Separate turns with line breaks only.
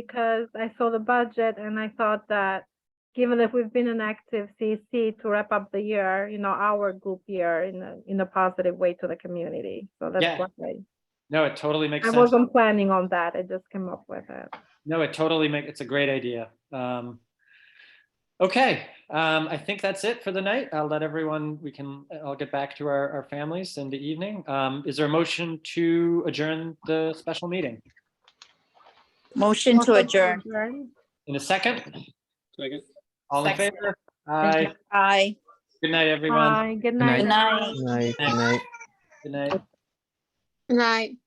because I saw the budget and I thought that given that we've been an active CEC to wrap up the year, you know, our group year in a, in a positive way to the community. So that's
Yeah,
why I,
No, it totally makes
I
sense.
wasn't planning on that. I just came up with it.
No, it totally make, it's a great idea. Um, okay, um, I think that's it for the night. I'll let everyone, we can, I'll get back to our, our families in the evening. Um, is there a motion to adjourn the special meeting?
Motion to
Also
adjourn.
In a second,
Second.
all in
Second.
favor? Aye.
Aye.
Good night, everyone.
Bye, good
night.
night.
Good night.
Night, night.
Good night.
Right.